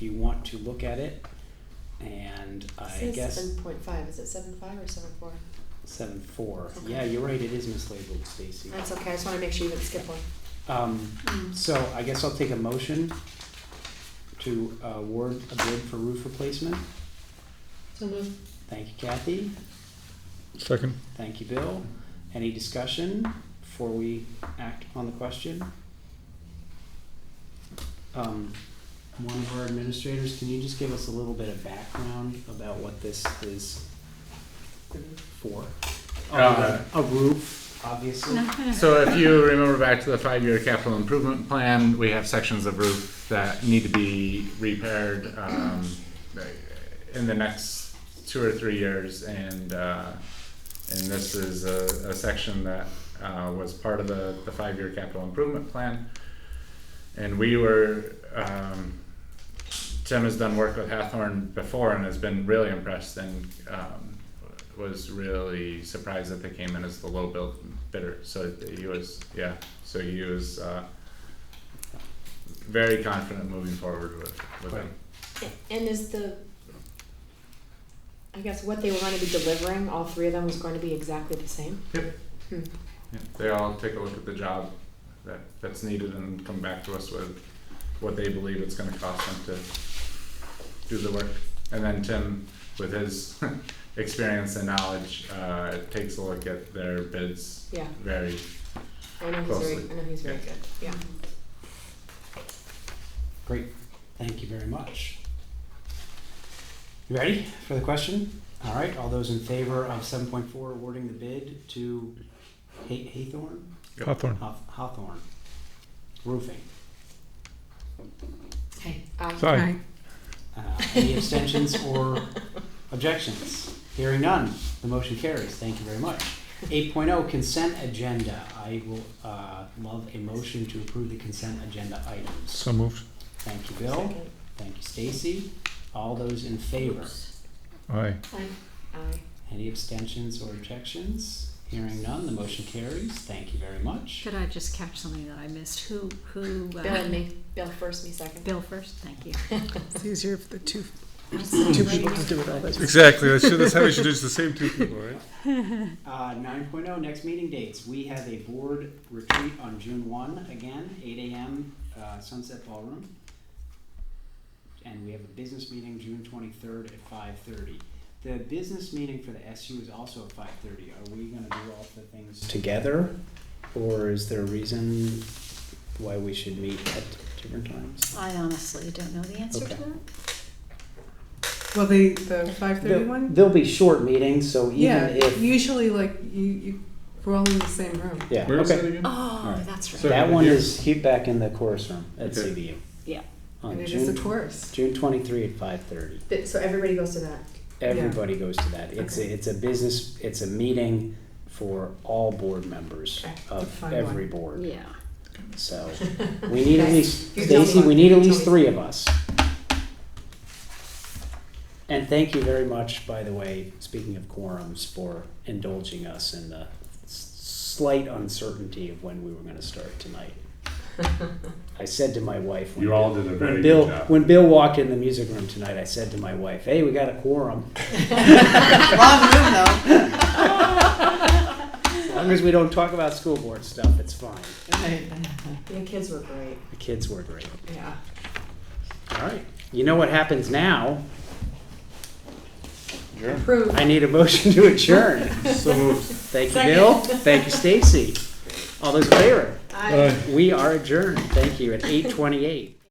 you want to look at it. And I It says guess seven point five, is it seven five or seven four? seven four. Okay. Yeah, you're right, it is mislabeled, Stacy. That's okay, I just wanna make sure you didn't skip one. Um, Mm. so I guess I'll take a motion to uh, award a bid for roof replacement. So move. Thank you, Kathy. Second. Thank you, Bill. Any discussion before we act upon the question? Um, one of our administrators, can you just give us a little bit of background about what this is for? Uh, A roof, obviously. So if you remember back to the five-year capital improvement plan, we have sections of roof that need to be repaired, um, in the next two or three years, and, uh, and this is a, a section that, uh, was part of the, the five-year capital improvement plan. And we were, um, Tim has done work with Hathorn before and has been really impressed and um, was really surprised that they came in as the low build bidder. So he was, yeah, so he was uh, very confident moving forward with, with them. And is the, I guess what they were gonna be delivering, all three of them was going to be exactly the same? Yeah, They all take a look at the job that, that's needed and come back to us with what they believe it's gonna cost them to do the work. And then Tim, with his experience and knowledge, uh, takes a look at their bids Yeah, very I know he's very, Closely. I know he's very Yeah. good, yeah. Great, thank you very much. You ready for the question? All right, all those in favor of seven point four awarding the bid to Ha- Haythorne? Hawthorne. Hawth- Hawthorne Roofing. Hey. Aye. Sorry. Uh, Any abstentions or objections? Hearing none, the motion carries. Thank you very much. 8.0 consent agenda. I will uh, love a motion to approve the consent agenda items. So moved. Thank you, Bill. Second. Thank you, Stacy. All those in favor? Aye. Aye. Aye. Any abstentions or objections? Hearing none, the motion carries. Thank you very much. Should I just catch something that I missed? Who, who? uh, Bill and me, Bill first, me second. Bill first, thank you. It's easier for the two, Two people to do it all that. Exactly. That's, that's how we should do it. It's the same two people, right? Uh, 9.0 next meeting dates. We have a board retreat on June 1 again, 8 a.m. Uh, Sunset Ballroom. And we have a business meeting June 23rd at 5:30. The business meeting for the SU is also at 5:30. Are we going to do all the things together, or is there a reason why we should meet at different times? I honestly don't know the answer to Okay. that. Well, the, the five thirty They'll, one? they'll be short meetings, so even Yeah, if usually like you, you, we're all in the same room. yeah, Where is that okay. again? Oh, Alright. that's right. Sorry. That one Yeah. is heat back in the chorus room at Okay. CBU. Yeah. On And it June is a course. June twenty-three at five thirty. Bi- So everybody goes to that? Everybody goes to that. It's a, Okay. it's a business. It's a meeting for all board members Okay. A of fun every board. Yeah. So we need at Okay. least You tell me Stacy. what- We need at you tell least me. three of us. And thank you very much, by the way. Speaking of quorums, for indulging us in the s- slight uncertainty of when we were going to start tonight. I said to my wife, when You all did a very when good Bill, job. when Bill walked in the music room tonight, I said to my wife, "Hey, we got a quorum." As long as we don't talk about school board stuff, it's fine. The kids were great, The kids were great. yeah. All right. You know what happens now? Approved. I need a motion to adjourn. So moved. Thank you, Bill. Thank you, Stacy. All those in favor? Aye. We are adjourned. Thank you at eight twenty-eight.